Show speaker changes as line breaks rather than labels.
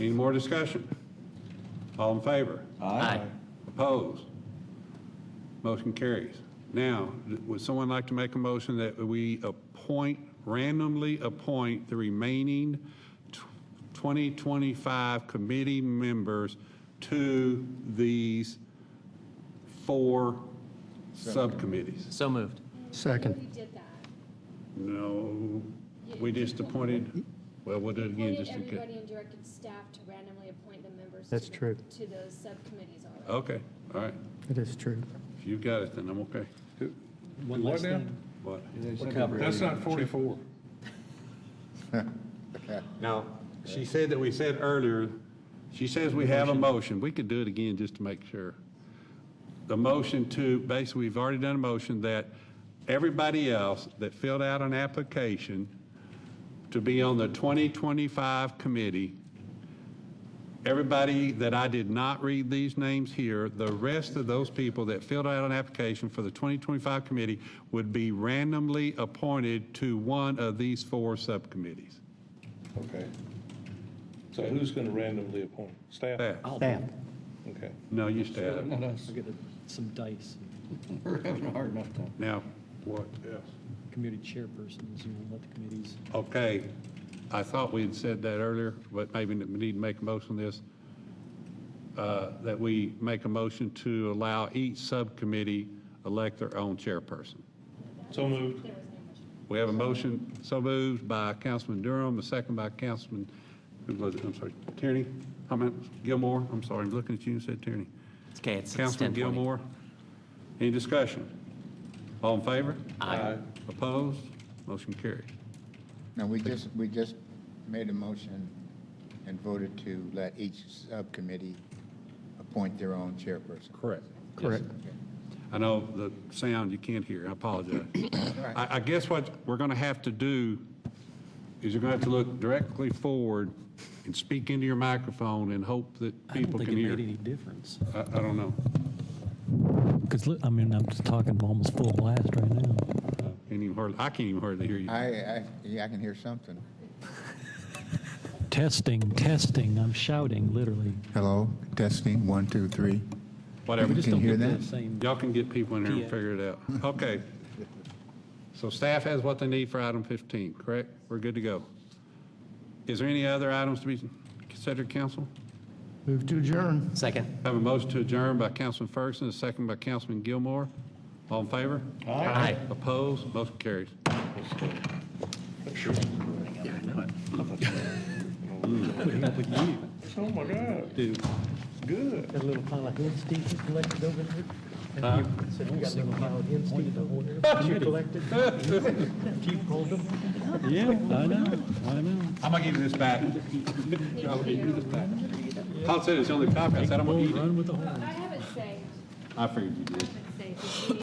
Any more discussion? All in favor?
Aye.
Opposed? Motion carries. Now, would someone like to make a motion that we appoint, randomly appoint the remaining tw- 2025 committee members to these four subcommittees?
So moved.
Second.
We did that.
No, we just appointed, well, we'll do it again
Appointed
just in case.
everybody and directed staff to randomly appoint the members. to
That's
the-
true.
To those subcommittees already.
Okay, all right.
It is true.
If you've got it, then I'm okay.
One last thing.
What?
That's not 44.
Now, she said that we said earlier, she says we have a motion. We could do it again just to make sure. The motion to, basically, we've already done a motion that everybody else that filled out an application to be on the 2025 committee, everybody that I did not read these names here, the rest of those people that filled out an application for the 2025 committee would be randomly appointed to one of these four subcommittees.
Okay. So who's going to randomly appoint? Staff?
That.
Staff.
Okay.
No, you stay out of it.
I'll get some dice. We're having a hard enough time.
Now, what else?
Committee chairpersons, you know, let the committees.
Okay, I thought we had said that earlier, but maybe we need to make a motion on this, uh, that we make a motion to allow each subcommittee elect their own chairperson.
So moved.
There was no motion.
We have a motion, so moved by Councilman Durham, a second by Councilman, who was it, I'm sorry, Tierney? I meant Gilmore, I'm sorry, I'm looking at you and said Tierney.
It's okay, it's it's 10:20.
Councilman Gilmore, any discussion? All in favor?
Aye.
Opposed? Motion carries.
No, we just, we just made a motion and voted to let each subcommittee appoint their own chairperson.
Correct.
Correct.
I know the sound you can't hear, I apologize. I, I guess what we're going to have to do is you're going to have to look directly forward and speak into your microphone and hope that
I don't
people
think
can
it
hear.
made any difference.
I, I don't know.
Because, I mean, I'm just talking almost full blast right now.
Can't even hardly, I can't even hardly hear you.
I, I, yeah, I can hear something.
Testing, testing, I'm shouting, literally.
Hello, testing, one, two, three.
Whatever.
You
Just
Can
don't
hear
get
that?
the same-
Y'all can get people in here and
Yeah.
figure it out. Okay. So staff has what they need for item 15, correct? We're good to go. Is there any other items to be considered, council?
Move to adjourn.
Second.
Have a motion to adjourn by Councilman Ferguson, a second by Councilman Gilmore. All in favor?
Aye.
Opposed? Motion carries.
Oh, my God.
Dude,
Good.
Got a little pile of hen stink you collected over there? Said you got a little pile of hen stink over there you collected? Chief called them?
Yeah, I know, I know.
I'm gonna give you this back. I'll give you this back. Paul said it's the only copy. I said I'm gonna eat it.
Run with the horn.
I haven't saved,
I figured you did.
I haven't saved.